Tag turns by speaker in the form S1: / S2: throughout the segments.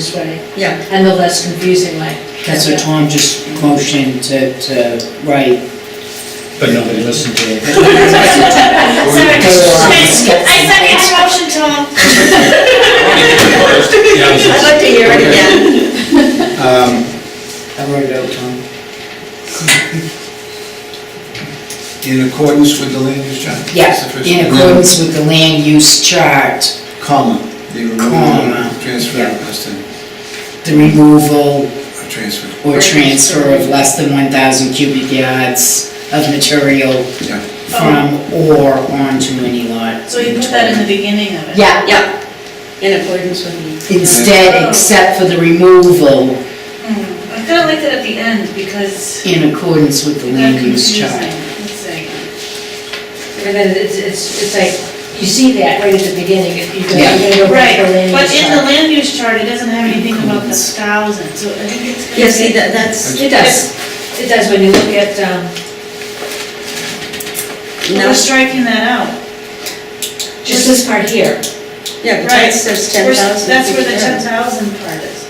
S1: this way
S2: Yeah,
S1: and the less confusing way.
S3: That's what Tom just motioned to, to write.
S4: But nobody listened to it.
S1: I second your motion, Tom.
S4: Yeah, I
S2: I'd
S4: was just-
S2: like to hear it again.
S4: um,
S3: I wrote it out, Tom.
S4: In accordance with the land use chart.
S3: Yeah,
S4: Sufficient.
S3: in accordance with the land use chart, comma,
S4: The removal,
S3: Comma.
S4: transfer,
S3: Yeah.
S4: less than,
S3: the removal
S4: or transfer,
S3: or transfer of less than one thousand cubic yards of material
S4: yeah.
S3: from or onto any lot.
S5: So you put that in the beginning of it?
S3: Yeah,
S2: Yeah, in accordance with
S3: instead, except for the removal
S5: Hmm, I kinda liked it at the end because
S3: in accordance with the
S5: it got
S3: land use
S5: confusing.
S3: chart.
S5: Let's see.
S1: And then it's, it's, it's like, you see that right at the beginning, if you go,
S3: Yeah.
S1: you're gonna go right
S5: Right,
S1: for land
S5: but
S1: use
S5: in the
S1: chart.
S5: land use chart, it doesn't have anything about the thousand, so I think it's.
S2: the.
S5: gonna
S2: Yeah, see,
S5: be-
S2: that, that's,
S1: It does, it does, when you look at, um,
S5: We're striking that out.
S1: just this part here.
S2: yeah, but
S5: Right.
S2: that's, there's ten
S5: We're-
S2: thousand.
S5: That's where the ten thousand part is.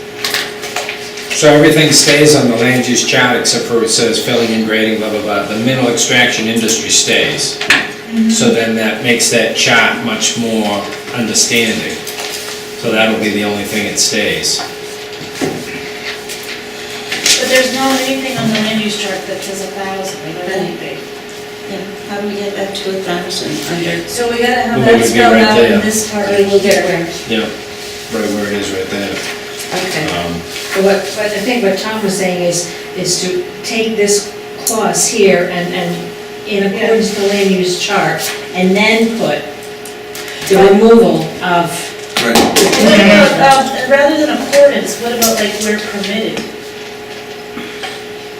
S6: So everything stays on the land use chart except for it says filling and grading, blah, blah, blah. The mineral extraction industry stays. So then that makes that chart much more understanding. So that'll be the only thing that stays.
S5: But there's no anything on the land use chart that says a thousand, like
S2: Right.
S5: anything.
S2: How do we get back to a thousand under?
S5: So we gotta have
S6: Well,
S5: that
S6: we'll get
S5: spelled
S6: right
S5: out in
S6: there.
S5: this part.
S2: Okay, we'll get there.
S6: Yeah, right where it is right there.
S2: Okay.
S6: Um,
S1: But what, but I think what Tom was saying is, is to take this clause here and, and in accordance with the land use chart, and then put the removal of,
S4: Right,
S5: What about, um, rather than accordance, what about like where permitted?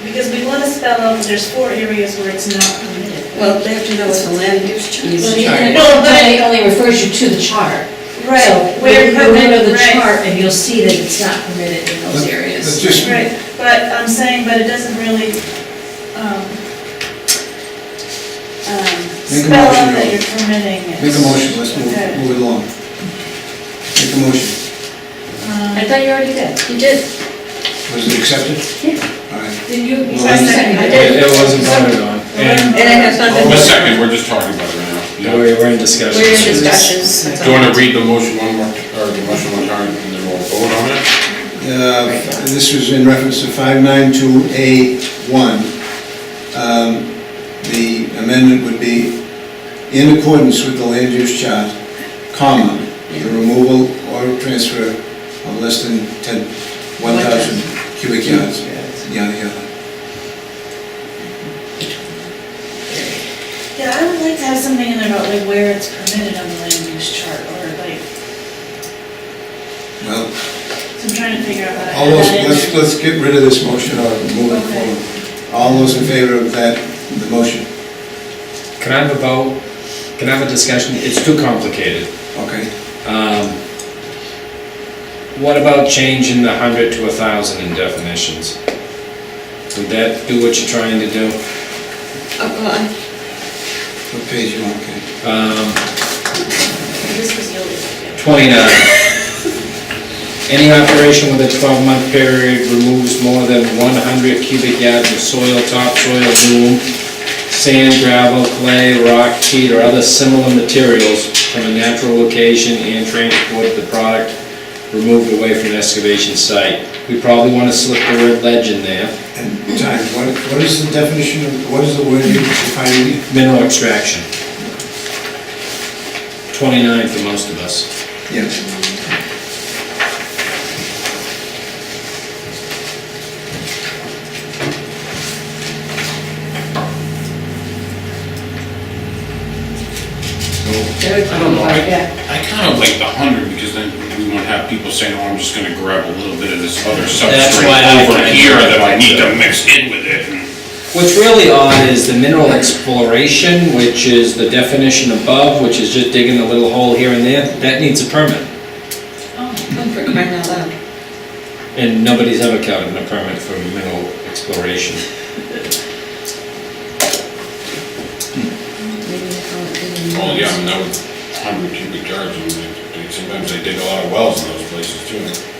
S5: Because we wanna spell out that there's four areas where it's not permitted.
S2: Well, they have to know what the land use chart
S1: well,
S2: is.
S1: the
S6: chart.
S1: Well, but it only refers you to the chart. So
S5: Where
S1: Where you
S5: permitted,
S1: go to the
S5: right.
S1: chart and you'll see that it's not permitted in those
S4: let's
S1: areas.
S4: just,
S5: Right, but I'm saying, but it doesn't really, um, um,
S4: Make a
S5: spell out
S4: motion,
S5: that
S4: Joe.
S5: you're permitting it.
S4: make a motion, let's move,
S5: Okay.
S4: move it along. Make a motion,
S5: Um,
S1: I thought you already did.
S2: You did,
S4: was it accepted? All right,
S1: Did you? you
S4: Well, I
S1: seconded
S2: I
S1: it.
S2: did.
S6: It it wasn't voted on. And
S2: and it has nothing.
S7: Well, a second, we're just talking about it right now.
S6: we're we're in discussion.
S2: We're in discussions. that's
S7: Do you want
S2: all.
S7: to read the motion one more, or the motion one time, and then we'll vote on it?
S4: Uh, This was in reference to 592A1. Um, The amendment would be in accordance with the land use chart, comma, the removal or transfer of less than 10, 1,000 cubic yards, yada, yada.
S5: Yeah, I would like to have something in there about like where it's permitted on the land use chart, or like,
S4: Well,
S5: so I'm trying to figure out how
S4: all
S5: to add
S4: those,
S5: that in
S4: let's,
S5: there.
S4: let's get rid of this motion or move it
S5: Okay.
S4: forward. All those in favor of that, the motion,
S6: Can I have a vote? Can I have a discussion? It's too complicated.
S4: okay?
S6: Um, What about changing the hundred to a thousand in definitions? Would that do what you're trying to do?
S2: Oh, well, I-
S4: What page you on, okay?
S6: Um,
S5: This was the old one.
S6: twenty-nine. Any operation with a twelve-month period removes more than one hundred cubic yards of soil, topsoil, loam, sand, gravel, clay, rock, peat, or other similar materials from a natural location and transported the product removed away from the excavation site. We probably wanna slip the word ledge in there.
S4: And time, what, what is the definition of, what is the word you define it?
S6: Mineral extraction. 29 for most of us.
S4: Yes.
S7: I don't know, I, I kind of like the hundred, because then we won't have people saying, oh, I'm just gonna grab a little bit of this other substrate
S6: why I
S7: over
S6: kinda
S7: here
S6: like
S7: that I
S6: that
S7: need to
S6: too.
S7: mix in with it, and
S6: What's really odd is the mineral exploration, which is the definition above, which is just digging a little hole here and there, that needs a permit.
S2: I'm for Oh, crying out loud.
S6: And nobody's ever gotten a permit for mineral exploration.
S2: Maybe they call it the-
S7: Well, yeah, I mean, that would, hundred cubic yards, and they- they- sometimes they dig a lot of wells in those places too.